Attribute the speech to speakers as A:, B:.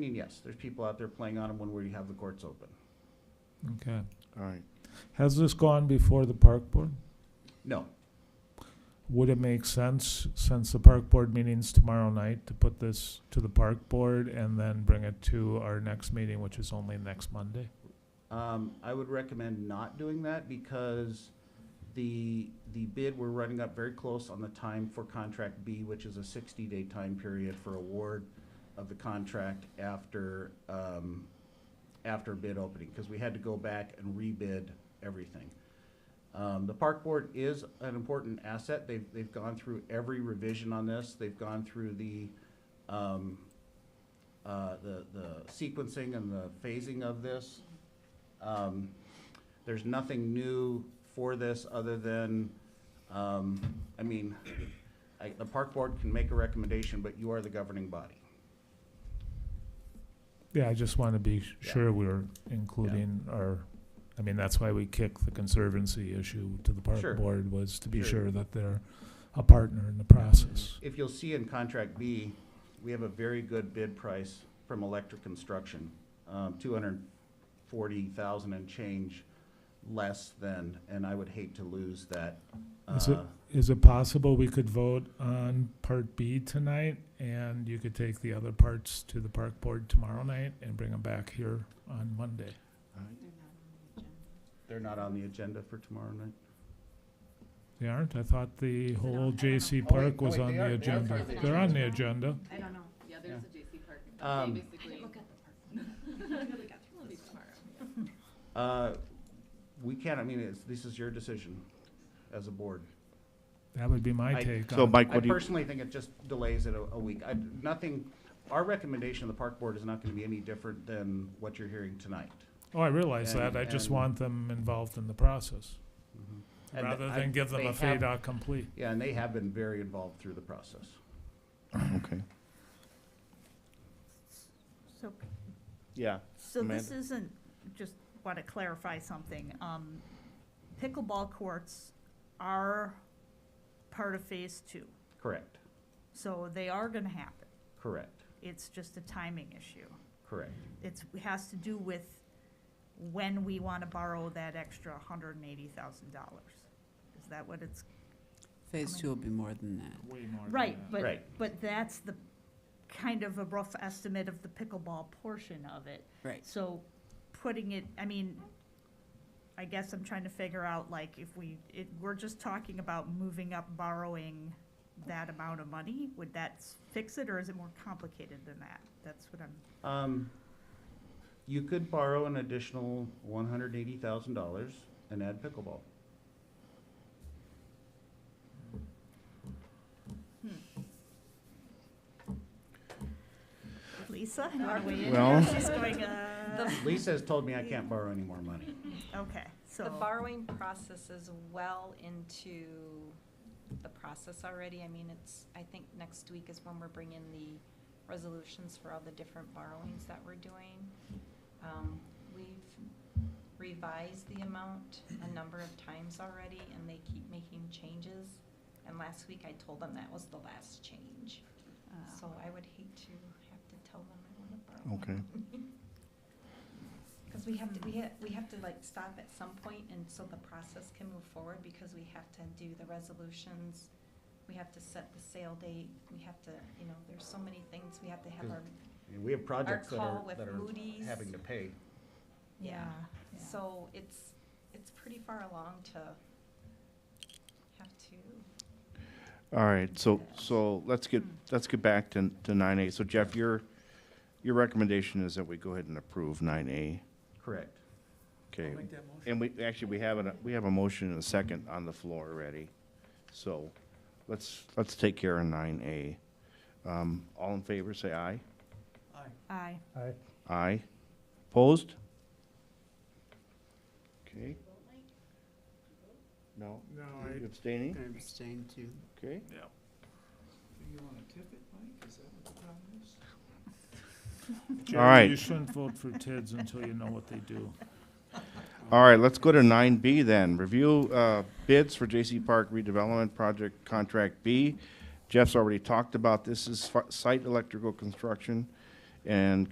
A: I mean, yes, there's people out there playing on them when we have the courts open.
B: Okay.
C: All right.
B: Has this gone before the park board?
A: No,
B: Would it make sense, since the park board meeting's tomorrow night, to put this to the park board and then bring it to our next meeting, which is only next Monday?
A: Um, I would recommend not doing that because the, the bid, we're running up very close on the time for contract B, which is a sixty-day time period for award of the contract after, um, after bid opening, because we had to go back and rebid everything. Um, the park board is an important asset. They've, they've gone through every revision on this. They've gone through the, um, uh, the, the sequencing and the phasing of this. Um, There's nothing new for this other than, um, I mean, I- the park board can make a recommendation, but you are the governing body.
B: Yeah, I just want to be s-
A: Yeah.
B: sure we're including our, I mean, that's why we kicked the conservancy issue to the
A: Sure.
B: park board, was to be
A: Sure.
B: sure that they're a partner in the process.
A: If you'll see in contract B, we have a very good bid price from Electric Construction, um, two hundred forty thousand and change less than, and I would hate to lose that.
B: Is it-
A: uh,
B: Is it possible we could vote on part B tonight and you could take the other parts to the park board tomorrow night and bring them back here on Monday?
C: All right.
A: They're not on the agenda for tomorrow night.
B: They aren't? I thought the
D: it
B: whole
D: on?
B: JC
A: Oh,
B: Park
A: wait,
B: was
A: no, wait,
B: on
A: they
B: the
A: are- they are
B: agenda.
A: part of the
B: They're on the
D: agenda.
B: agenda.
D: I don't know.
E: Yeah,
A: Yeah.
E: there's a JC Park.
A: Um,
E: They basically,
D: Look at the park. Really got through
E: it'll be
D: this.
E: tomorrow.
A: Uh, We can't, I mean, it's, this is your decision as a board.
B: That would be my
A: I-
B: take
C: So
B: on it.
C: Mike,
A: I
C: what do you,
A: personally think it just delays it a, a week. I, nothing, our recommendation of the park board is not gonna be any different than what you're hearing tonight.
B: Oh, I realize
A: and-
B: that. I just
A: and-
B: want them involved in the process,
A: And
B: rather
A: I-
B: than give them
A: they
B: a
A: have-
B: fade out complete.
A: Yeah, and they have been very involved through the process.
C: okay.
F: So,
C: Yeah.
F: so this
C: Amanda?
F: isn't, just want to clarify something. Um, Pickleball courts are part of phase two,
A: Correct,
F: so they are going to happen.
A: correct,
F: It's just a timing issue.
A: correct.
F: It's, it has to do with when we want to borrow that extra hundred and eighty thousand dollars. Is that what it's,
G: Phase
F: Coming.
G: two will be more than that.
B: Way more than
F: right,
B: that.
F: but,
A: Right.
F: but that's the, kind of a rough estimate of the pickleball portion of it.
G: Right.
F: So putting it, I mean, I guess I'm trying to figure out, like, if we, it, we're just talking about moving up borrowing that amount of money, would that s- fix it, or is it more complicated than that? That's what I'm,
A: Um, You could borrow an additional one hundred eighty thousand dollars and add pickleball.
F: Lisa, you wanna weigh in?
C: Well-
F: She's going, uh,
A: Lisa has told me I can't borrow any more money.
F: okay, so.
H: The borrowing process is well into the process already. I mean, it's, I think next week is when we're bringing the resolutions for all the different borrowings that we're doing. Um, We've revised the amount a number of times already, and they keep making changes. And last week I told them that was the last change.
F: uh,
H: So I would hate to have to tell them I want to borrow.
C: Okay.
H: Because we have to, we have, we have to like stop at some point and so the process can move forward because we have to do the resolutions. We have to set the sale date. We have to, you know, there's so many things. We have to have our,
A: I mean, We have projects that are,
H: call with
A: that are
H: Moody's.
A: having to pay.
H: yeah.
F: yeah.
H: So it's, it's pretty far along to have to,
C: All right. So, so let's get, let's get back to, to nine A. So Jeff, your, your recommendation is that we go ahead and approve nine A.
A: Correct.
C: Okay. And we, actually, we have a, we have a motion and a second on the floor already. So let's, let's take care of nine A. Um, all in favor, say aye.
F: Aye.
C: Aye. Opposed? Okay. No? No. Abstaining?
G: I abstain too.
C: Okay.
B: Jerry,
C: right.
B: You shouldn't vote for TIDS until you know what they do.
C: All right, let's go to nine B then. Review uh, bids for J.C. Park redevelopment project contract B. Jeff's already talked about this is fi- site electrical construction and